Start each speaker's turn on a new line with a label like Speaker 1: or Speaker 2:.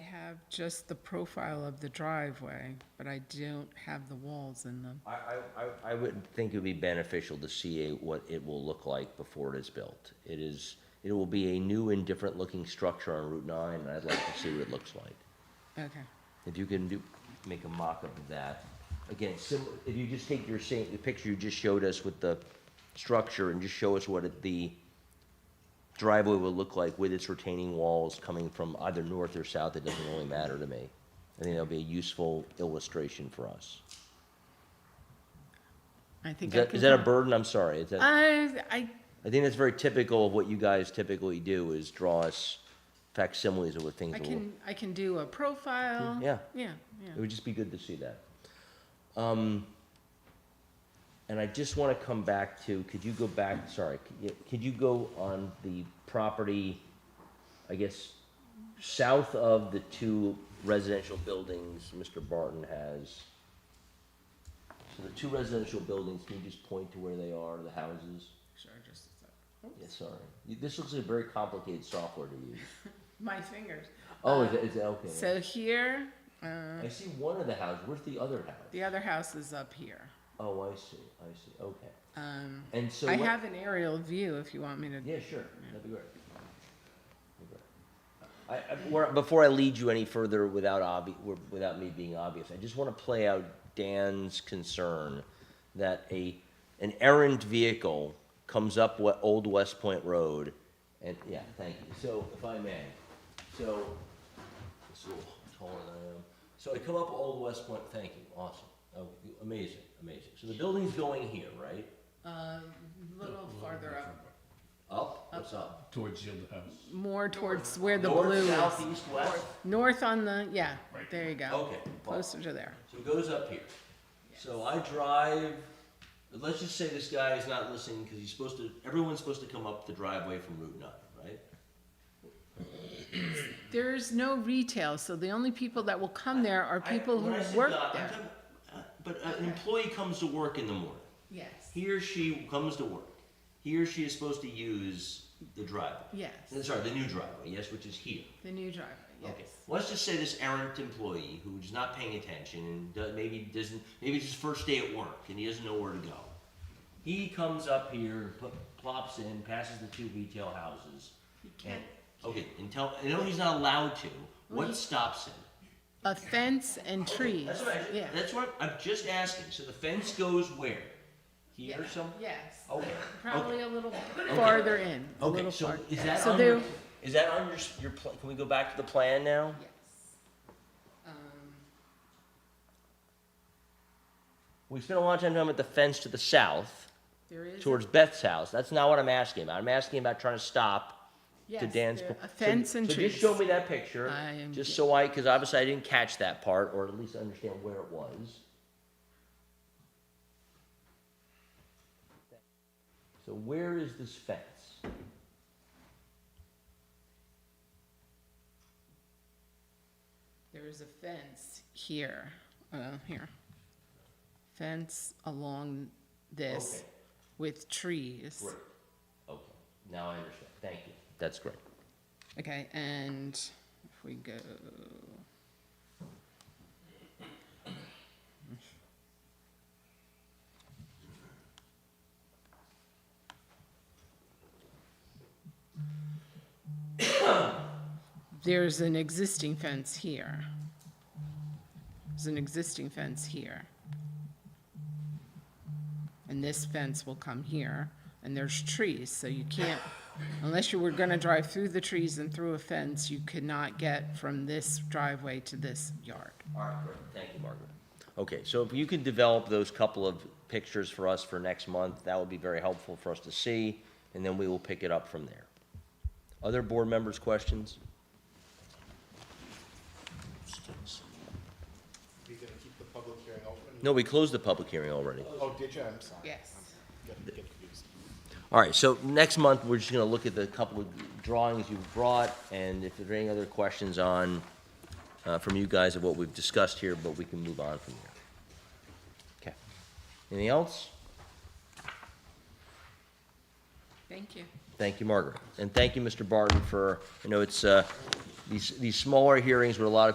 Speaker 1: have just the profile of the driveway, but I don't have the walls in them.
Speaker 2: I, I- I, I would think it would be beneficial to see a- what it will look like before it is built. It is, it will be a new and different looking structure on Route 9, and I'd like to see what it looks like.
Speaker 1: Okay,
Speaker 2: If you can do, make a mock-up of that. Again, sim, if you just take your same, the picture you just showed us with the structure and just show us what it- the driveway will look like with its retaining walls coming from either north or south, it doesn't really matter to me. I think that'll be a useful illustration for us.
Speaker 1: I
Speaker 2: Is
Speaker 1: think I
Speaker 2: that,
Speaker 1: can.
Speaker 2: is that a burden? I'm sorry. Is that,
Speaker 1: I, I,
Speaker 2: I think that's very typical of what you guys typically do is draw us facsimiles of what things
Speaker 1: I
Speaker 2: will look
Speaker 1: can, I can do a profile.
Speaker 2: Yeah.
Speaker 1: Yeah, yeah.
Speaker 2: It would just be good to see that. Um, and I just want to come back to, could you go back, sorry, could you, could you go on the property, I guess, south of the two residential buildings Mr. Barton has? So the two residential buildings, can you just point to where they are, the houses?
Speaker 1: Sure, just a sec.
Speaker 2: Yes, sorry. You- This looks like very complicated software to use.
Speaker 1: My fingers.
Speaker 2: Oh, is it, is it, okay.
Speaker 1: So here, uh,
Speaker 2: I see one of the houses. Where's the other house?
Speaker 1: the other house is up here.
Speaker 2: Oh, I see, I see, okay.
Speaker 1: Um,
Speaker 2: And so
Speaker 1: I
Speaker 2: what-
Speaker 1: have an aerial view if you want me to.
Speaker 2: Yeah, sure. That'd be great. I, I, where- before I lead you any further without obvi, without me being obvious, I just want to play out Dan's concern that a, an errant vehicle comes up what, Old West Point Road, and, yeah, thank you. So, if I may, so, it's a little taller than I am. So I come up Old West Point, thank you, awesome, oh, amazing, amazing. So the building's going here, right?
Speaker 1: A little farther up,
Speaker 2: Up, what's up?
Speaker 3: towards the other house.
Speaker 1: more towards where the
Speaker 2: North,
Speaker 1: blue is.
Speaker 2: south, east, west?
Speaker 1: North on the, yeah, there you go.
Speaker 2: Okay, fine.
Speaker 1: Closer to there.
Speaker 2: So it goes up here. So I drive. Let's just say this guy is not listening because he's supposed to. Everyone's supposed to come up the driveway from Route Nine, right?
Speaker 1: There is no retail, so the only people that will come there are
Speaker 2: I-
Speaker 1: people
Speaker 2: when I say
Speaker 1: who work
Speaker 2: God, I'm
Speaker 1: there.
Speaker 2: talking- uh, but an employee comes to work in the morning.
Speaker 1: Yes,
Speaker 2: He or she comes to work. He or she is supposed to use the driveway.
Speaker 1: yes,
Speaker 2: Sorry, the new driveway. Yes, which is here.
Speaker 1: the new driveway, yes.
Speaker 2: Okay. Let's just say this errant employee who's not paying attention and do- maybe doesn't, maybe it's his first day at work and he doesn't know where to go. He comes up here, pl- plops in, passes the two retail houses. and- Okay, and tell, I know he's not allowed to. What stops him?
Speaker 1: A fence and trees,
Speaker 2: Oh, That's what I,
Speaker 1: yeah.
Speaker 2: that's what I'm just asking. So the fence goes where? Here
Speaker 1: Yeah,
Speaker 2: or some? Oh,
Speaker 1: Yes,
Speaker 2: Okay. Oh. okay.
Speaker 1: probably a little farther in, a
Speaker 2: Okay,
Speaker 1: little
Speaker 2: so
Speaker 1: farther.
Speaker 2: is that
Speaker 1: So
Speaker 2: on your,
Speaker 1: there-
Speaker 2: is that on your, s- your, pl- can we go back to the plan now?
Speaker 1: Yes. Um,
Speaker 2: We spent a lot of time talking about the fence to the south.
Speaker 1: There is.
Speaker 2: towards Beth's house. That's not what I'm asking about. I'm asking about trying to stop to
Speaker 1: yes,
Speaker 2: Dan's.
Speaker 1: there-
Speaker 2: po-
Speaker 1: A fence
Speaker 2: so,
Speaker 1: and
Speaker 2: so
Speaker 1: trees.
Speaker 2: just show me that picture,
Speaker 1: I am
Speaker 2: just
Speaker 1: get-
Speaker 2: so I, because obviously I didn't catch that part, or at least understand where it was. So where is this fence?
Speaker 1: There is a fence here, uh, here. Fence along this
Speaker 2: Okay.
Speaker 1: with trees.
Speaker 2: Great. Okay. Now I understand. Thank you. That's great.
Speaker 1: Okay, and if we go. There's an existing fence here. There's an existing fence here. And this fence will come here, and there's trees, so you can't, unless you were gonna drive through the trees and through a fence, you could not get from this driveway to this yard.
Speaker 2: All right, great. Thank you, Margaret. Okay, so if you could develop those couple of pictures for us for next month, that would be very helpful for us to see, and then we will pick it up from there. Other board members' questions?
Speaker 4: Are you gonna keep the public hearing open?
Speaker 2: No, we closed the public hearing already.
Speaker 4: Oh, did you? I'm sorry.
Speaker 1: Yes.
Speaker 4: I'm Getting getting confused.
Speaker 2: All right, so next month, we're just gonna look at the couple of drawings you've brought, and if there are any other questions on, uh, from you guys of what we've discussed here, but we can move on from there. Okay. Anything else?
Speaker 1: Thank you.
Speaker 2: Thank you, Margaret. And thank you, Mr. Barton, for, you know, it's, uh, these, these smaller hearings with a lot of